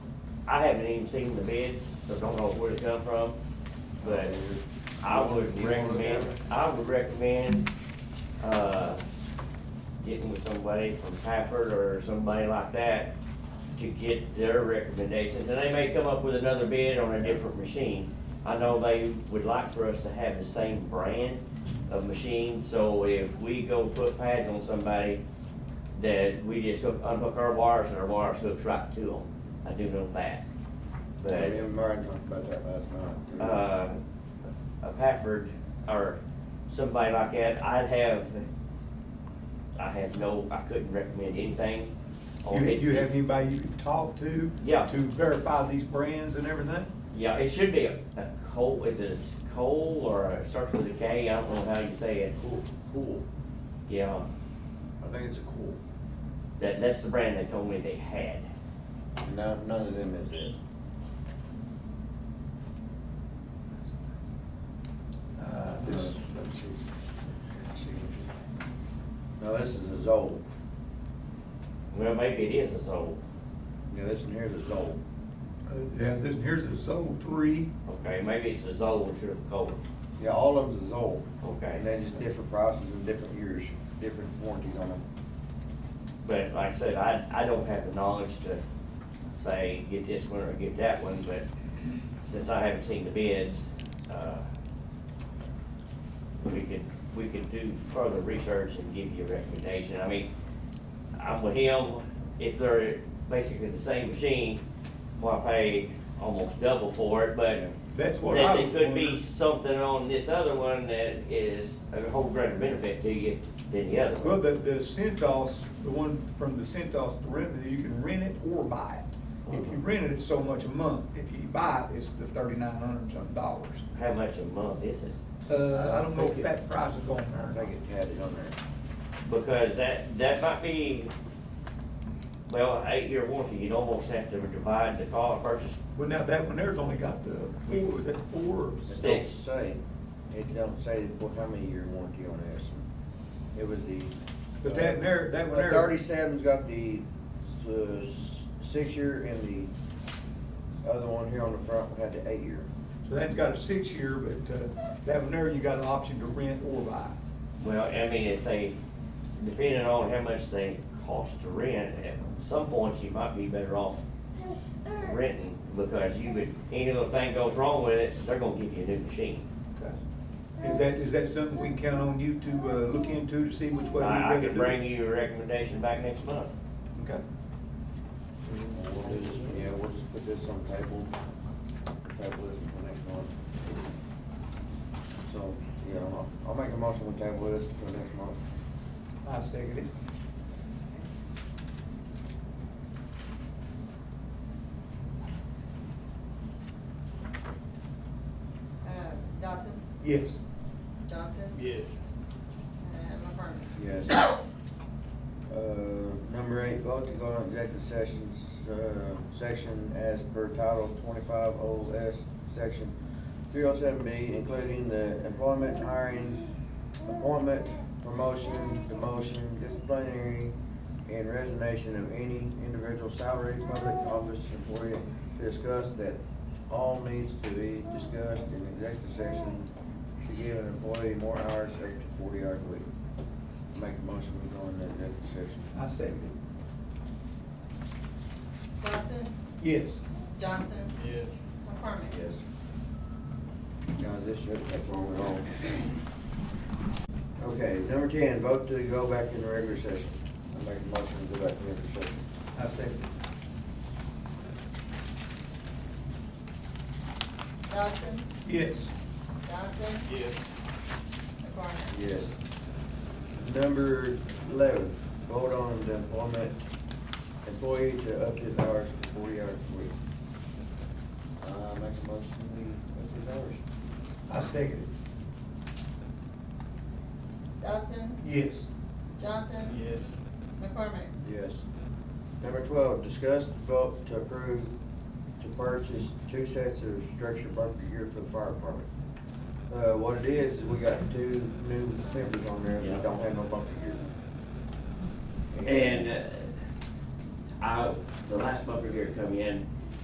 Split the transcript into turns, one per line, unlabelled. I haven't even seen the bids, so don't know where to come from, but I would
You wanna look at
recommend,
it?
I would recommend, uh, getting with somebody from Pafford or somebody like that to get their recommendations, and they may come up with another bid on a different machine. I know they would like for us to have the same brand of machine, so if we go put pads on somebody, that we just hook, unhook our wires and our wires hooks right to them. I do know that.
Me
But,
and Martin talked about that last night. too.
uh, a Pafford or somebody like that, I'd have, I have no, I couldn't recommend anything on
You,
it.
you have anybody you can talk to?
Yeah.
To verify these brands and everything?
Yeah, it should be a, a coal, is it a s- coal or a starts with a K? I don't know how you say it.
Cool, cool.
Yeah,
I think it's a cool.
that, that's the brand they told me they had.
No, none of them is it.
Uh, this, let's see. Let's see.
No, this is a Zoll.
Well, maybe it is a Zoll,
Yeah, this one here is a Zoll.
Uh, Yeah, this, here's a Zoll three.
okay, maybe it's a Zoll instead of a coal,
Yeah, all of them's a Zoll.
okay.
And they're just different prices and different years, different warranties on them.
But like I said, I, I don't have the knowledge to say, get this one or get that one, but since I haven't seen the bids, uh, we could, we could do further research and give you a recommendation. I mean, I'm with him, if they're basically the same machine, well, I paid almost double for it, but
That's what I
that it
was
could be
wondering.
something on this other one that is a whole greater benefit to you than the other one.
Well, the, the Centos, the one from the Centos perimeter, you can rent it or buy it. If you rent it, it's so much a month. If you buy it, it's the thirty-nine hundred and something dollars.
How much a month is it?
Uh, I don't know if
think
that
it-
price is on
I
there.
think it had it on there.
Because that, that might be, well, eight-year warranty, you'd almost have to divide the cost, purchase
Well, now, that one there's only got the four, is that four?
It don't
Six.
say, it don't say what, how many year warranty on this. It was the. uh,
But that one there, that one there.
Thirty-seven's got the, uh, s- six-year and the other one here on the front had the eight-year.
So that's got a six-year, but uh, that one there, you got an option to rent or buy.
Well, I mean, if they, depending on how much they cost to rent, at some points you might be better off renting because you would, any little thing goes wrong with it, they're gonna give you a new machine.
Is that, is that something we can count on you to uh, look into to see which way you'd
I, I
rather
could
do?
bring you a recommendation back next month.
Okay.
We'll do this, yeah, we'll just put this on table, table this until next month. So, yeah, I'll, I'll make a motion to table this until next month.
I second it.
Uh, Dawson,
Yes.
Johnson.
Yes.
And McCormick.
Yes. Uh, number eight, vote to go on executive sessions, uh, section as per title twenty-five O S, section three oh seven B, including the employment, hiring, appointment, promotion, demotion, disciplinary, and resignation of any individual salary, public office employee to discuss that all needs to be discussed in executive session to give an employee more hours up to forty hours a week. Make a motion, we go into executive session.
I second it.
Dawson,
Yes.
Johnson,
Yes.
McCormick.
Yes. Guys, this should take long at all. Okay, number ten, vote to go back into regular session. I make a motion to go back into regular session.
I second it.
Dawson,
Yes.
Johnson,
Yes.
McCormick.
Yes. Number eleven, vote on the employment, employee to up his hours to forty hours a week. Uh, make a motion, we, up his hours.
I second it.
Dawson,
Yes.
Johnson,
Yes.
McCormick.
Yes. Number twelve, discuss the vote to approve to purchase two sets of structured bunker gear for the fire department. Uh, what it is, is we got two new members on there
Yeah.
that don't have no bunker gear.
And uh, I, the last bunker gear come in,